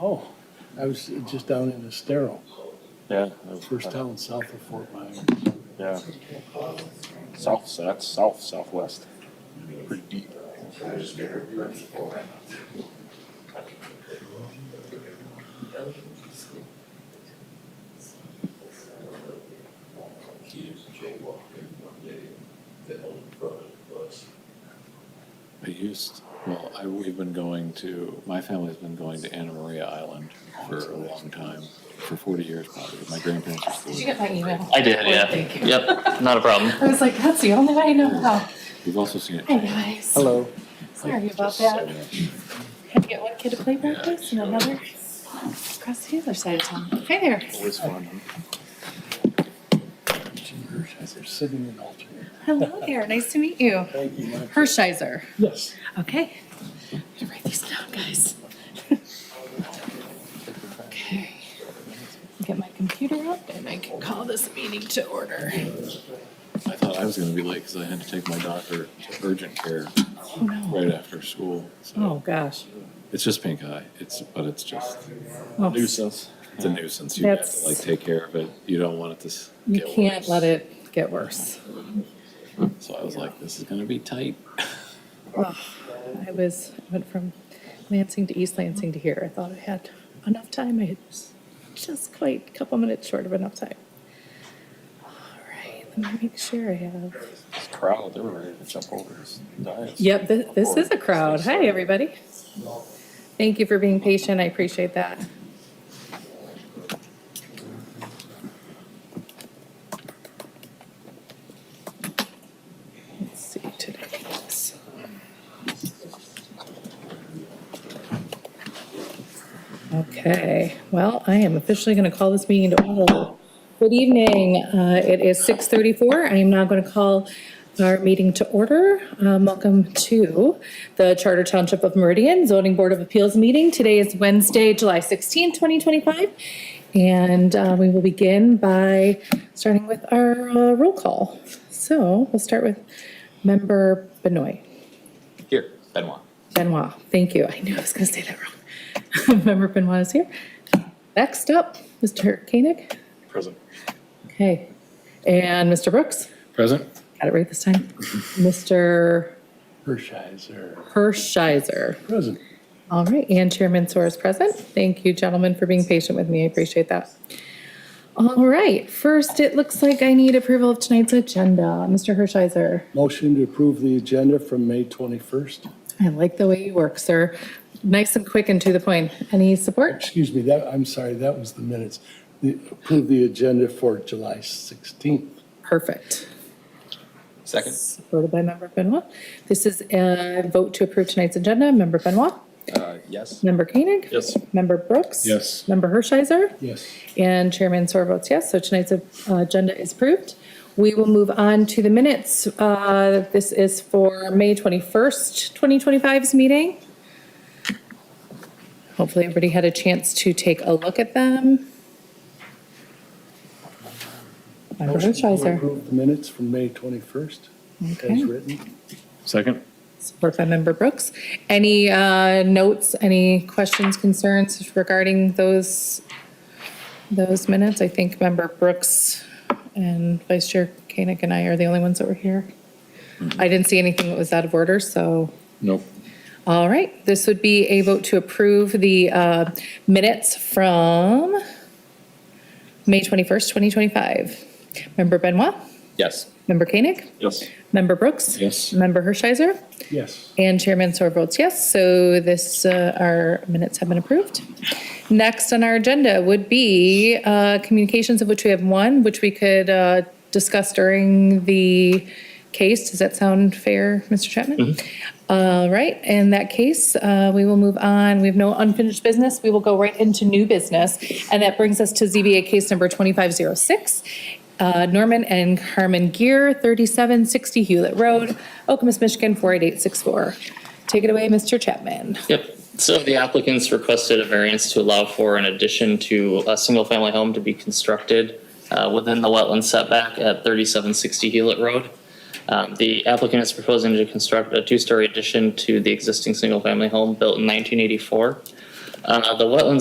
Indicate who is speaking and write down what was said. Speaker 1: Oh, I was just down in Estero,
Speaker 2: Yeah.
Speaker 1: first town south of Fort Myers.
Speaker 2: Yeah. South, so that's south, southwest. Pretty deep.
Speaker 3: I used, well, I, we've been going to, my family's been going to Anna Maria Island for a long time, for forty years probably. My grandparents are
Speaker 4: Did
Speaker 3: still
Speaker 4: you
Speaker 3: there.
Speaker 4: get my email?
Speaker 5: I did,
Speaker 4: Oh,
Speaker 5: yeah.
Speaker 4: Thank you.
Speaker 5: Yep, not a problem.
Speaker 4: I was like, that's the only way I know how.
Speaker 3: We've also seen it.
Speaker 4: Hi, guys.
Speaker 1: Hello.
Speaker 4: Sorry about that. Had to get one kid to play practice and another across the other side of town. Hi there.
Speaker 2: Always fun.
Speaker 1: They're sitting in alternate.
Speaker 4: Hello there. Nice to meet you.
Speaker 1: Thank you, Mike.
Speaker 4: Hershiser.
Speaker 1: Yes.
Speaker 4: Okay. I'm gonna write these down, guys. Okay. Get my computer up and I can call this meeting to order.
Speaker 3: I thought I was gonna be late because I had to take my daughter to urgent care
Speaker 4: Oh, no.
Speaker 3: right after school.
Speaker 4: Oh,
Speaker 3: So
Speaker 4: gosh.
Speaker 3: it's just pink eye. It's, but it's just,
Speaker 4: Oh,
Speaker 2: Nuisance.
Speaker 3: it's a nuisance. You have
Speaker 4: That's-
Speaker 3: to like take care of it. You don't want it to s-
Speaker 4: You
Speaker 3: get
Speaker 4: can't
Speaker 3: worse.
Speaker 4: let it get worse.
Speaker 3: So I was like, this is gonna be tight.
Speaker 4: Well, I was, went from Lansing to East Lansing to here. I thought I had enough time. I had just quite a couple minutes short of enough time. All right, let me make sure I have.
Speaker 2: It's crowd, they were ready to jump over this dais.
Speaker 4: Yep, thi- this is a crowd. Hi, everybody. Thank you for being patient. I appreciate that. Let's see today. is- Okay, well, I am officially going to call this meeting to order. Good evening. Uh, It is 6:34. I am now going to call our meeting to order. Um, Welcome to the Charter Township of Meridian Zoning Board of Appeals meeting. Today is Wednesday, July 16, 2025. And uh, we will begin by starting with our uh, roll call. So we'll start with Member Benoit.
Speaker 5: Here, Benoit.
Speaker 4: Benoit, thank you. I knew I was going to say that wrong. Member Benoit is here. Next up, Mr. Koenig.
Speaker 2: Present.
Speaker 4: Okay. And Mr. Brooks?
Speaker 3: Present?
Speaker 4: Got it right this time. Mr.
Speaker 1: Hershiser,
Speaker 4: Hershiser.
Speaker 1: present.
Speaker 4: All right, and Chairman Soar is present. Thank you, gentlemen, for being patient with me. I appreciate that. All right, first, it looks like I need approval of tonight's agenda. Mr. Hershiser,
Speaker 1: Motion to approve the agenda from May 21st.
Speaker 4: I like the way you work, sir. Nice and quick and to the point. Any support?
Speaker 1: Excuse me, that, I'm sorry, that was the minutes. The- Approve the agenda for July 16th.
Speaker 4: Perfect.
Speaker 5: Second.
Speaker 4: Supported by Member Benoit. This is a vote to approve tonight's agenda. Member Benoit?
Speaker 5: Uh, yes.
Speaker 4: Member Koenig?
Speaker 2: Yes.
Speaker 4: Member Brooks?
Speaker 3: Yes.
Speaker 4: Member Hershiser?
Speaker 1: Yes.
Speaker 4: And Chairman Sore votes yes, so tonight's uh, agenda is approved. We will move on to the minutes. Uh, This is for May 21st, 2025's meeting. Hopefully, everybody had a chance to take a look at them. Member
Speaker 1: Motion to
Speaker 4: Hershiser,
Speaker 1: approve the minutes from May 21st, as
Speaker 4: Okay.
Speaker 1: written.
Speaker 3: Second?
Speaker 4: support by Member Brooks. Any uh, notes, any questions, concerns regarding those, those minutes? I think Member Brooks and Vice Chair Koenig and I are the only ones that were here. I didn't see anything that was out of order, so,
Speaker 3: Nope.
Speaker 4: all right. This would be a vote to approve the uh, minutes from May 21st, 2025. Member Benoit,
Speaker 5: Yes.
Speaker 4: Member Koenig,
Speaker 2: Yes.
Speaker 4: Member Brooks.
Speaker 3: Yes.
Speaker 4: Member Hershiser.
Speaker 1: Yes.
Speaker 4: And Chairman Sore votes yes, so this, uh, our minutes have been approved. Next on our agenda would be uh, communications, of which we have one, which we could uh, discuss during the case. Does that sound fair, Mr. Chapman? All right, in that case, uh, we will move on. We have no unfinished business. We will go right into new business. And that brings us to ZBA case number 2506, uh, Norman and Carmen Gear, 3760 Hewlett Road, Okemos, Michigan, 48864. Take it away, Mr. Chapman.
Speaker 5: Yep. So the applicants requested a variance to allow for an addition to a single-family home to be constructed uh, within the wetland setback at 3760 Hewlett Road. Um, The applicant is proposing to construct a two-story addition to the existing single-family home built in 1984. Uh, The wetlands